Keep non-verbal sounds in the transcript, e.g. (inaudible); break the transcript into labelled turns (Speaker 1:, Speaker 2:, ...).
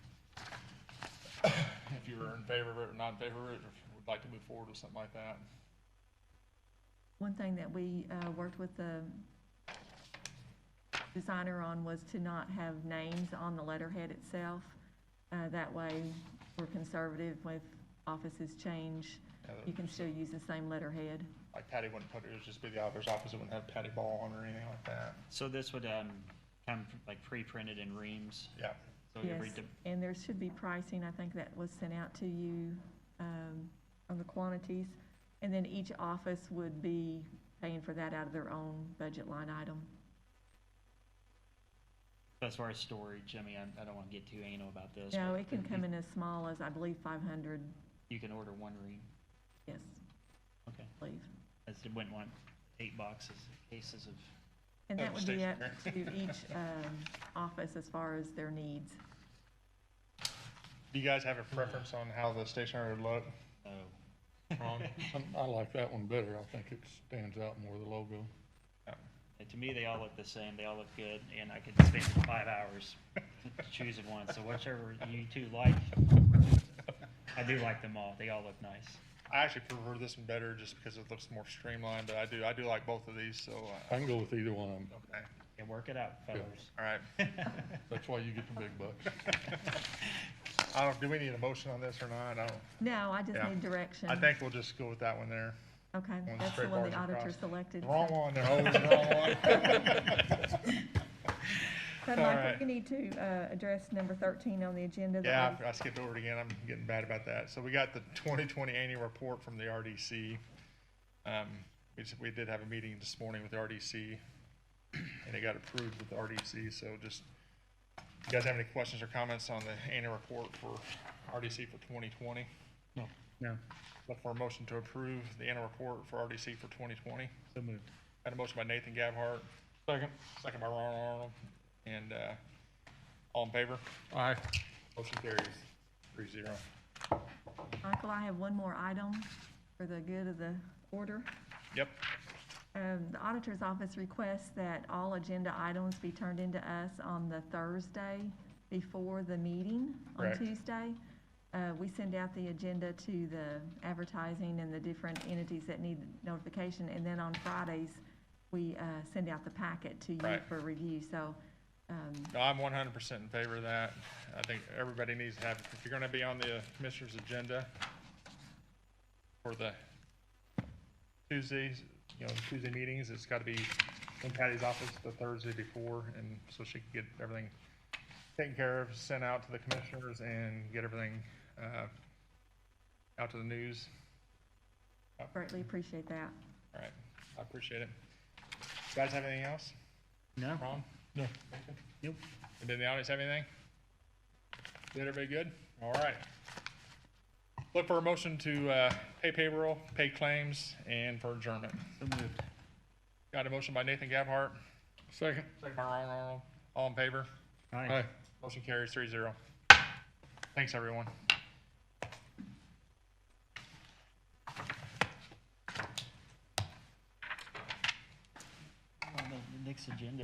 Speaker 1: if you're in favor of it or not in favor of it, or if you would like to move forward with something like that.
Speaker 2: One thing that we uh, worked with the designer on was to not have names on the letterhead itself. Uh, That way, we're conservative with offices change.
Speaker 1: Yeah, that-
Speaker 2: You can still use the same letterhead.
Speaker 1: Like Patty wouldn't put, it would just be the auditor's office, it wouldn't have Patty Ball on or anything like that.
Speaker 3: So this would, um, come like pre-printed in reams,
Speaker 1: Yeah,
Speaker 3: so every,
Speaker 2: Yes,
Speaker 3: de-
Speaker 2: and there should be pricing, I think that was sent out to you, um, on the quantities. And then each office would be paying for that out of their own budget line item.
Speaker 3: as far as storage, I mean, I, I don't wanna get too anal about this.
Speaker 2: No,
Speaker 3: but
Speaker 2: it can come in as small as, I believe, five hundred,
Speaker 3: You can order one ream,
Speaker 2: yes,
Speaker 3: okay,
Speaker 2: I believe.
Speaker 3: as it wouldn't want eight boxes, cases of,
Speaker 2: And that would be up to
Speaker 1: Stationary.
Speaker 2: each, um, office as far as their needs.
Speaker 1: do you guys have a preference on how the stationery would look?
Speaker 3: oh.
Speaker 1: Ron?
Speaker 4: I- I like that one better. I think it stands out more, the logo.
Speaker 3: Uh, (laughs) To me, they all look the same. They all look good, and I could spend five hours (laughs) choosing one. So whichever you two like, I do like them all. They all look nice.
Speaker 1: I actually prefer this one better just because it looks more streamlined, but I do, I do like both of these, so, uh,
Speaker 4: I can go with either one. of 'em.
Speaker 1: okay,
Speaker 3: And work it out, fellas.
Speaker 1: all right. (laughs)
Speaker 4: That's why you get the big bucks.
Speaker 1: I don't, do we need a motion on this or not? I don't,
Speaker 2: No, I just
Speaker 1: Yeah.
Speaker 2: need direction.
Speaker 1: I think we'll just go with that one there.
Speaker 2: Okay,
Speaker 1: One
Speaker 2: that's the
Speaker 1: straight
Speaker 2: one the
Speaker 1: bars
Speaker 2: auditor
Speaker 1: across.
Speaker 2: selected.
Speaker 1: Wrong one, there, always the wrong one.
Speaker 2: So
Speaker 1: All
Speaker 2: Michael,
Speaker 1: right.
Speaker 2: we need to, uh, address number thirteen on the agenda. the
Speaker 1: Yeah,
Speaker 2: audit-
Speaker 1: I I skipped over it again. I'm getting bad about that. So we got the (laughs) 2020 annual report from the RDC. Um, we just, we did have a meeting this morning with the RDC (clears throat) and it got approved with the RDC. So just, you guys have any questions or comments on the annual report for RDC for 2020?
Speaker 3: No, no,
Speaker 1: Look for a motion to approve the annual report for RDC for 2020.
Speaker 3: so moved.
Speaker 1: Got a motion by Nathan Gabhart. Second. Second by Ron Arnold. And, uh, all in favor? Aye. Motion carries three zero.
Speaker 2: Michael, I have one more item for the good of the order.
Speaker 1: Yep.
Speaker 2: Um, the auditor's office requests that all agenda items be turned into us on the Thursday before the meeting on
Speaker 1: Correct.
Speaker 2: Tuesday. Uh, we send out the agenda to the advertising and the different entities that need notification, and then on Fridays, we, uh, send out the packet to you
Speaker 1: Right.
Speaker 2: for review, so, um,
Speaker 1: No, I'm one hundred percent in favor of that. I think everybody needs to have, if you're gonna be on the commissioner's agenda for the Tuesdays, you know, Tuesday meetings, it's gotta be in Patty's office the Thursday before, and so she can get everything taken care of, sent out to the commissioners, and get everything, uh, out to the news.
Speaker 2: greatly appreciate that.
Speaker 1: All right, I appreciate it. Guys have anything else?
Speaker 3: (laughs) No,
Speaker 1: Ron? No.
Speaker 3: nope.
Speaker 1: And did the audience have anything? Did everybody good? All right. Look for a motion to uh, pay payroll, pay claims, and for adjournment.
Speaker 3: So moved.
Speaker 1: Got a motion by Nathan Gabhart,
Speaker 4: Second.
Speaker 1: second by Ron Arnold. All in favor?
Speaker 3: Hi.
Speaker 4: Aye.
Speaker 1: Motion carries three zero. Thanks, everyone.
Speaker 3: Next agenda.